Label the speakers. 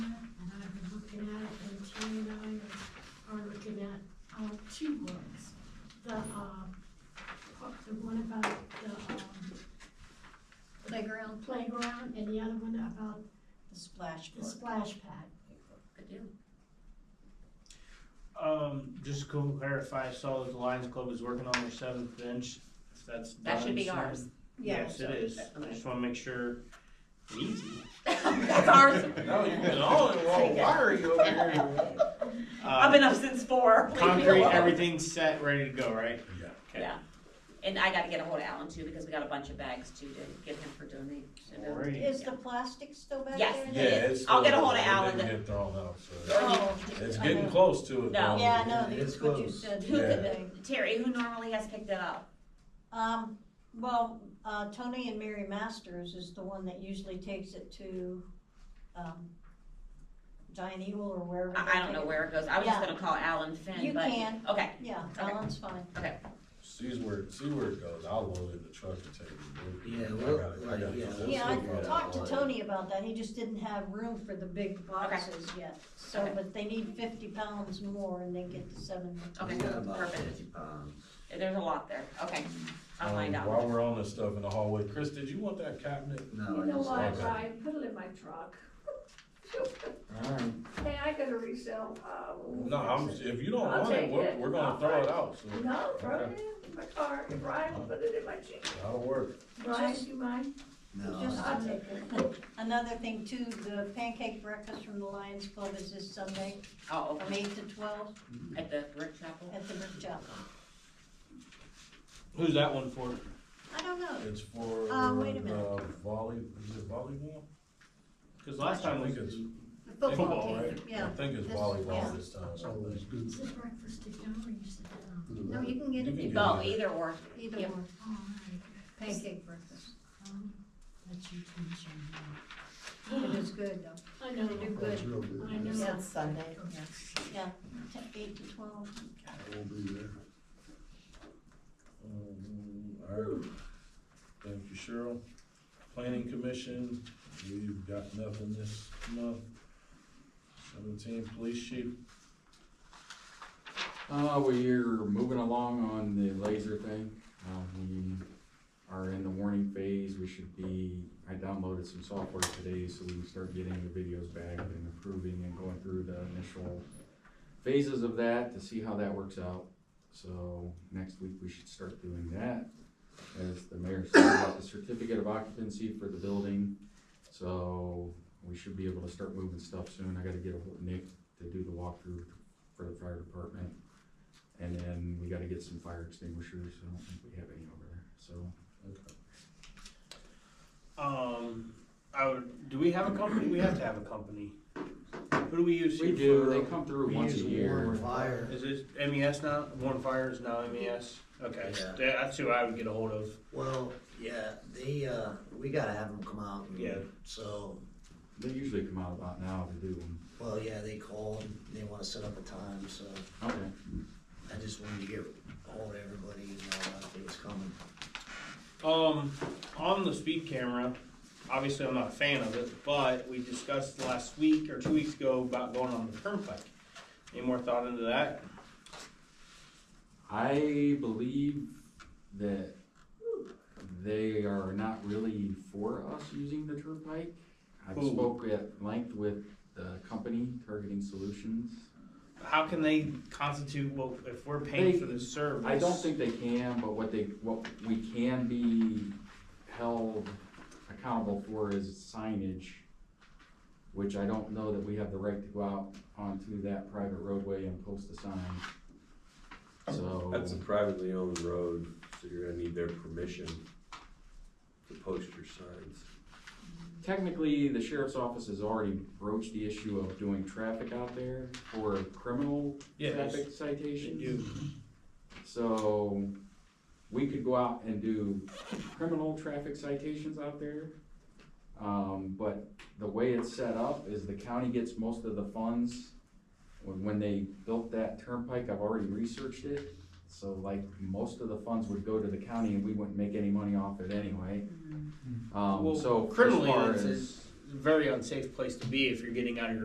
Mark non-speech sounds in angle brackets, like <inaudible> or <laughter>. Speaker 1: about
Speaker 2: The splash
Speaker 1: the
Speaker 2: part.
Speaker 1: splash pad.
Speaker 2: Good deal.
Speaker 3: Um, just to clarify, I saw that the Lions Club is working on their seventh bench, if that's done.
Speaker 4: That should be
Speaker 3: soon.
Speaker 4: ours.
Speaker 3: Yes, it
Speaker 2: so-
Speaker 3: is, I
Speaker 2: okay.
Speaker 3: just wanna make sure, easy. Uh, <laughs>
Speaker 4: That's ours.
Speaker 5: No, you've been all in wrong. Why are you over here?
Speaker 4: I've
Speaker 3: Uh,
Speaker 4: been up since four. Leave me
Speaker 3: concrete,
Speaker 4: alone.
Speaker 3: everything's set, ready to go, right?
Speaker 5: Yeah.
Speaker 3: Okay.
Speaker 4: Yeah. And I gotta get a hold of Alan too, because we got a bunch of bags too to give him for donation.
Speaker 3: Alright.
Speaker 2: Is the plastic still back
Speaker 4: Yes.
Speaker 2: there?
Speaker 5: <laughs> Yeah, it's.
Speaker 4: I'll get a
Speaker 5: still-
Speaker 4: hold of
Speaker 5: it
Speaker 4: Alan.
Speaker 5: Didn't get thrown out, so.
Speaker 2: Oh,
Speaker 5: It's
Speaker 2: I
Speaker 5: getting
Speaker 2: know.
Speaker 5: close to it.
Speaker 4: No.
Speaker 5: though.
Speaker 2: Yeah, no,
Speaker 6: It's
Speaker 2: that's what you
Speaker 6: closed.
Speaker 2: said.
Speaker 4: Who
Speaker 5: Yeah.
Speaker 4: could, Terry, who normally has picked it up?
Speaker 2: Um, well, uh, Tony and Mary Masters is the one that usually takes it to, um, Giant Eagle or wherever.
Speaker 4: I,
Speaker 2: they
Speaker 4: I don't
Speaker 2: take
Speaker 4: know
Speaker 2: it.
Speaker 4: where it goes. I was just
Speaker 2: Yeah.
Speaker 4: gonna call Alan Finn,
Speaker 2: You
Speaker 4: but.
Speaker 2: can.
Speaker 4: Okay,
Speaker 2: Yeah,
Speaker 4: Okay.
Speaker 2: Alan's fine.
Speaker 5: See where, see where it goes. I'll load it in the truck and take it.
Speaker 6: Yeah,
Speaker 5: I
Speaker 6: well,
Speaker 5: gotta- I gotta-
Speaker 6: yeah,
Speaker 5: that's
Speaker 2: Yeah,
Speaker 5: what we
Speaker 2: I
Speaker 5: gotta
Speaker 2: talked to
Speaker 5: order.
Speaker 2: Tony about that, he just didn't have room for the big boxes yet. So,
Speaker 4: Okay.
Speaker 2: but they need fifty pounds more and they get the seven.
Speaker 4: okay,
Speaker 6: We uh, um, got about
Speaker 4: perfect.
Speaker 6: fifty pounds.
Speaker 4: There's a lot there. Okay, I'll
Speaker 5: Um,
Speaker 4: find out.
Speaker 5: While we're on this stuff in the hallway, Chris, did you want that cabinet?
Speaker 6: No,
Speaker 7: You
Speaker 6: I
Speaker 7: know
Speaker 6: just
Speaker 7: why,
Speaker 6: like
Speaker 5: what?
Speaker 7: Brian? Put it in my truck.
Speaker 6: Alright,
Speaker 7: Hey, I gotta resell, uh.
Speaker 5: No, I'm, if you don't
Speaker 7: I'll
Speaker 5: want it,
Speaker 7: take
Speaker 5: we're,
Speaker 7: it.
Speaker 5: we're gonna
Speaker 7: I'll
Speaker 5: throw
Speaker 7: find
Speaker 5: it
Speaker 7: it.
Speaker 5: out, so.
Speaker 7: No, throw it
Speaker 5: Okay,
Speaker 7: in my car, and Brian will put it in my jeep.
Speaker 5: That'll work.
Speaker 7: Brian,
Speaker 2: Just-
Speaker 7: you mind?
Speaker 6: no,
Speaker 2: Just-
Speaker 7: I'll take it.
Speaker 2: Another thing too, the pancake breakfast from the Lions Club is this Sunday
Speaker 4: Oh,
Speaker 2: from
Speaker 4: okay,
Speaker 2: eight to twelve
Speaker 4: at the brick chapel.
Speaker 2: at the Brick Chapel.
Speaker 3: Who's that one for?
Speaker 2: I don't know,
Speaker 5: It's for, uh,
Speaker 2: Um, wait a minute.
Speaker 5: volley, is it volleyball?
Speaker 3: Cause last time
Speaker 5: I
Speaker 3: we
Speaker 5: think
Speaker 3: could,
Speaker 5: it's
Speaker 2: the football
Speaker 5: Football,
Speaker 2: team,
Speaker 5: right?
Speaker 2: yeah.
Speaker 5: I think it's
Speaker 2: This- yeah.
Speaker 5: volleyball this time.
Speaker 1: Is it breakfast at dawn or you sit down? No, you can
Speaker 5: You
Speaker 1: get
Speaker 5: can
Speaker 1: it.
Speaker 5: get
Speaker 4: Well,
Speaker 5: it.
Speaker 4: either or.
Speaker 2: Either
Speaker 4: Yep.
Speaker 2: one,
Speaker 1: Oh, all right.
Speaker 2: pancake breakfast.
Speaker 1: Um, That's your tension.
Speaker 2: It is good though,
Speaker 7: I know,
Speaker 2: they do
Speaker 6: that's
Speaker 2: good,
Speaker 6: real good.
Speaker 7: I know.
Speaker 2: yeah,
Speaker 4: Sunday.
Speaker 2: yeah, t- eight to twelve.
Speaker 6: I won't be there.
Speaker 5: Um, all right. Thank you, Cheryl. Planning Commission, we've got nothing this month. Seventeen, police chief,
Speaker 8: Uh, we're moving along on the laser thing. Uh, we are in the warning phase. We should be, I downloaded some software today so we can start getting the videos back and approving and going through the initial phases of that to see how that works out. So next week we should start doing that. As the mayor said about the certificate of occupancy for the building. So we should be able to start moving stuff soon. I gotta get a hold of Nick to do the walkthrough for the fire department. And then we gotta get some fire extinguishers, I don't think we have any over there, so.
Speaker 3: um, I would, do we have a company? We have to have a company. Who do we use?
Speaker 8: We
Speaker 3: here
Speaker 8: do,
Speaker 3: for-
Speaker 8: they come through
Speaker 6: We
Speaker 8: once a
Speaker 6: use
Speaker 8: year.
Speaker 6: warm Fire.
Speaker 3: Is it MES now? Warren Fire is now MES? Okay,
Speaker 6: Yeah.
Speaker 3: that's who I would get a hold of.
Speaker 6: Well, yeah, they, uh, we gotta have them come out. and-
Speaker 3: Yeah.
Speaker 6: So,
Speaker 8: They usually come out about now to do them.
Speaker 6: well, yeah, they called, they wanna set up a time, so
Speaker 8: Okay.
Speaker 6: I just wanted to get ahold of everybody, you know, that it was coming.
Speaker 3: Um, on the speed camera, obviously I'm not a fan of it, but we discussed last week or two weeks ago about going on the turnpike. Any more thought into that?
Speaker 8: I believe that they are not really for us using the turnpike. I
Speaker 3: Who?
Speaker 8: spoke at length with the company, Targeting Solutions.
Speaker 3: How can they constitute, well, if we're paying for this service?
Speaker 8: I don't think they can, but what they, what we can be held accountable for is signage, which I don't know that we have the right to go out onto that private roadway and post a sign. So,
Speaker 9: That's a privately owned road, so you're gonna need their permission to post your signs.
Speaker 8: technically, the sheriff's office has already broached the issue of doing traffic out there for criminal
Speaker 3: Yes.
Speaker 8: traffic
Speaker 3: They
Speaker 8: citations.
Speaker 3: do.
Speaker 8: So we could go out and do criminal traffic citations out there. Um, but the way it's set up is the county gets most of the funds. When, when they built that turnpike, I've already researched it. So like most of the funds would go to the county and we wouldn't make any money off it anyway. Um,
Speaker 3: Well,
Speaker 8: so as
Speaker 3: criminally,
Speaker 8: far
Speaker 3: it's
Speaker 8: as-
Speaker 3: a very unsafe place to be if you're getting out of your